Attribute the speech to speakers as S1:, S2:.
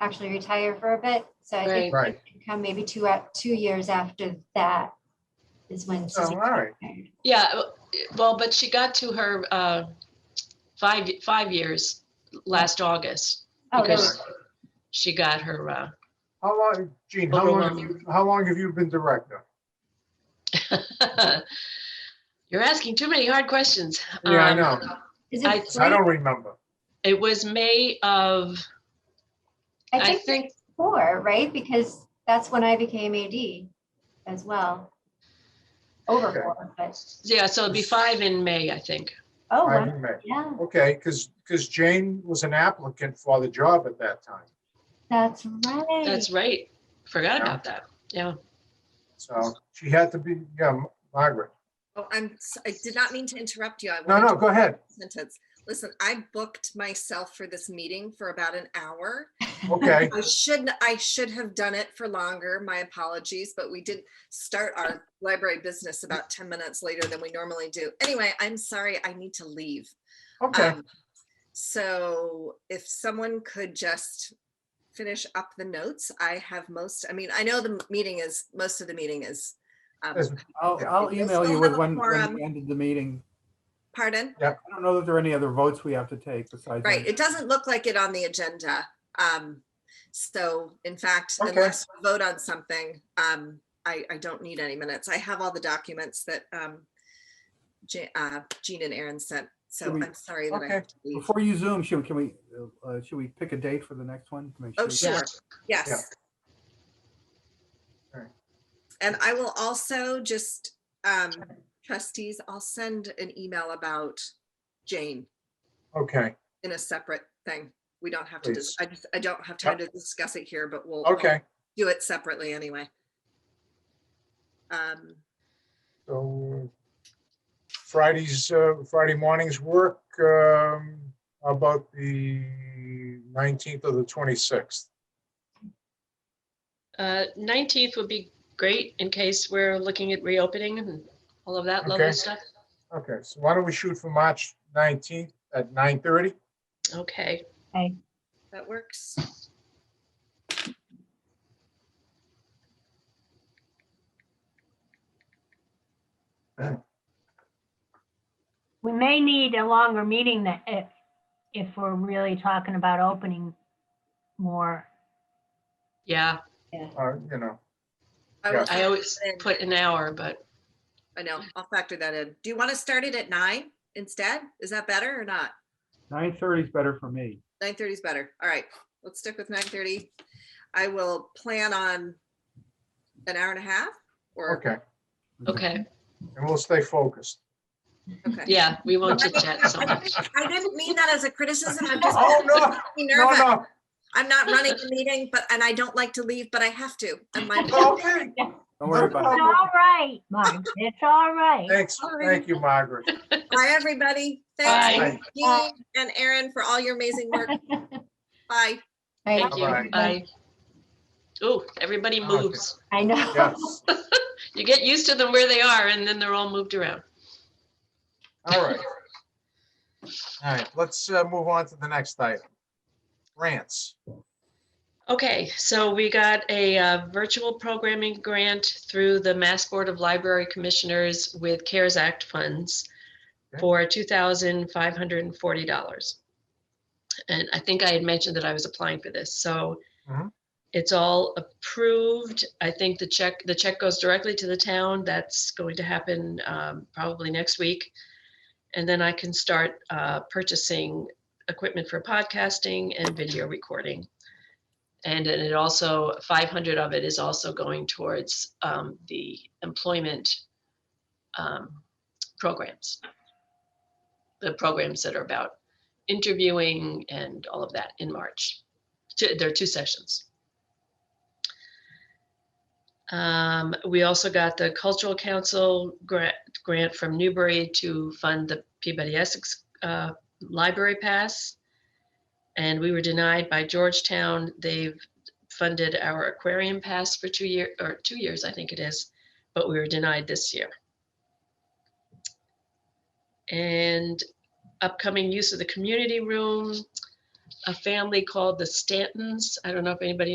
S1: actually retire for a bit. So I think
S2: Right.
S1: come maybe two, at two years after that is when
S2: Oh, all
S1: Susie
S2: right.
S1: retired.
S3: Yeah, w- well, but she got to her uh, five, five years last August.
S1: Oh,
S3: Because she got her, uh,
S2: How long, Gene, how long, have you- how long have you been director?
S3: uh, you're asking too many hard questions.
S2: Yeah, I
S3: Um,
S2: know.
S1: is
S3: I-
S1: it?
S2: I
S1: three?
S2: don't remember.
S3: It was May of, I
S1: I think
S3: think,
S1: four, right? Because that's when I became AD as well. Over
S2: Okay.
S1: four, but,
S3: yeah, so it'd be five in May, I think.
S1: oh,
S2: I
S1: wow,
S2: remember.
S1: yeah,
S2: Okay, because, because Jane was an applicant for the job at that time.
S1: that's right.
S3: That's right. Forgot about that. Yeah.
S2: So she had to be, yeah, Margaret.
S4: Oh, I'm, s- I did not mean to interrupt you. I
S2: No,
S4: wanted
S2: no,
S4: to
S2: go ahead.
S4: finish the Sentence. Listen, I booked myself for this meeting for about an hour.
S2: Okay,
S4: I shouldn't, I should have done it for longer. My apologies, but we did start our library business about 10 minutes later than we normally do. Anyway, I'm sorry, I need to leave.
S2: okay.
S4: Um, So if someone could just finish up the notes, I have most, I mean, I know the meeting is, most of the meeting is. um,
S2: Yes.
S5: I'll,
S2: Yeah.
S5: I'll
S4: You'll
S5: email
S4: still
S5: you with
S4: have a
S5: when, when
S4: quorum.
S5: we ended the meeting.
S4: Pardon?
S5: I don't know that there are any other votes we have to take besides.
S4: Right,
S5: that.
S4: it doesn't look like it on the agenda. Um, so in fact,
S2: Okay.
S4: unless we vote on something, um, I, I don't need any minutes. I have all the documents that, um, Ja- uh, Jean and Aaron sent, so
S5: Should we-
S4: I'm sorry that I
S2: Okay.
S4: have to leave.
S5: Before you zoom, should, can we, uh, should we pick a date for the next one? to make
S4: Oh,
S5: sure-
S4: sure,
S2: Yeah.
S4: yes.
S2: Alright.
S4: And I will also just, um, trustees, I'll send an email about Jane
S2: Okay,
S4: in a separate thing. We don't have to, dis-
S2: Please. Uh,
S4: I just, I don't have time to discuss it here, but we'll. I'll
S2: okay.
S4: do it separately anyway. Um,
S2: So Fridays, uh, Friday mornings work um, about the 19th or the 26th.
S3: Uh, 19th would be great in case we're looking at reopening and all of that
S2: Okay.
S3: lovely stuff.
S2: Okay, so why don't we shoot for March 19th at 9:30?
S3: Okay.
S4: that works.
S6: We may need a longer meeting that if, if we're really talking about opening more.
S3: Yeah,
S2: Uh, You know,
S4: will
S2: Yeah.
S3: I
S4: factor
S3: always
S4: that in.
S3: put an hour, but
S4: I know, I'll factor that in. Do you want to start it at nine instead? Is that better or not?
S5: 9:30 is better for me.
S4: Nine thirty is better. All right, let's stick with nine thirty. I will plan on an hour and a half or,
S2: okay,
S3: okay.
S2: and we'll stay focused.
S4: okay.
S3: Yeah, we won't chit chat so much.
S4: I didn't mean that as a criticism. I'm just
S2: Oh, no, no,
S4: nervous.
S2: no,
S4: I'm not running the meeting, but, and I don't like to leave, but I have to. And my,
S2: okay.
S5: Don't worry
S6: It's
S5: about it.
S6: all right, Mark. It's all right.
S2: Thanks, thank you, Margaret.
S4: bye, everybody.
S3: Bye.
S4: Thanks,
S2: Bye.
S4: Jean and Aaron, for all your amazing work. Bye.
S1: Right.
S3: Thank you.
S2: Bye-bye.
S3: Bye. Oh, everybody
S2: Okay.
S3: moves.
S1: I know.
S2: Yes,
S3: You get used to them where they are and then they're all moved around.
S2: all right. All right, let's uh, move on to the next item. Grants.
S3: Okay, so we got a uh, virtual programming grant through the Mass Board of Library Commissioners with CARES Act funds
S2: Okay.
S3: for $2,540. And I think I had mentioned that I was applying for this, so
S2: Mhm.
S3: it's all approved. I think the check, the check goes directly to the town. That's going to happen um, probably next week. And then I can start uh, purchasing equipment for podcasting and video recording. And then it also, 500 of it is also going towards um, the employment um, programs. The programs that are about interviewing and all of that in March. Two- There are two sessions. Um, We also got the Cultural Council grant, grant from Newbury to fund the Peabody Essex uh, Library Pass and we were denied by Georgetown. They've funded our aquarium pass for two year, or two years, I think it is, but we were denied this year. And upcoming use of the community room. a family called the Stantons. I don't know if anybody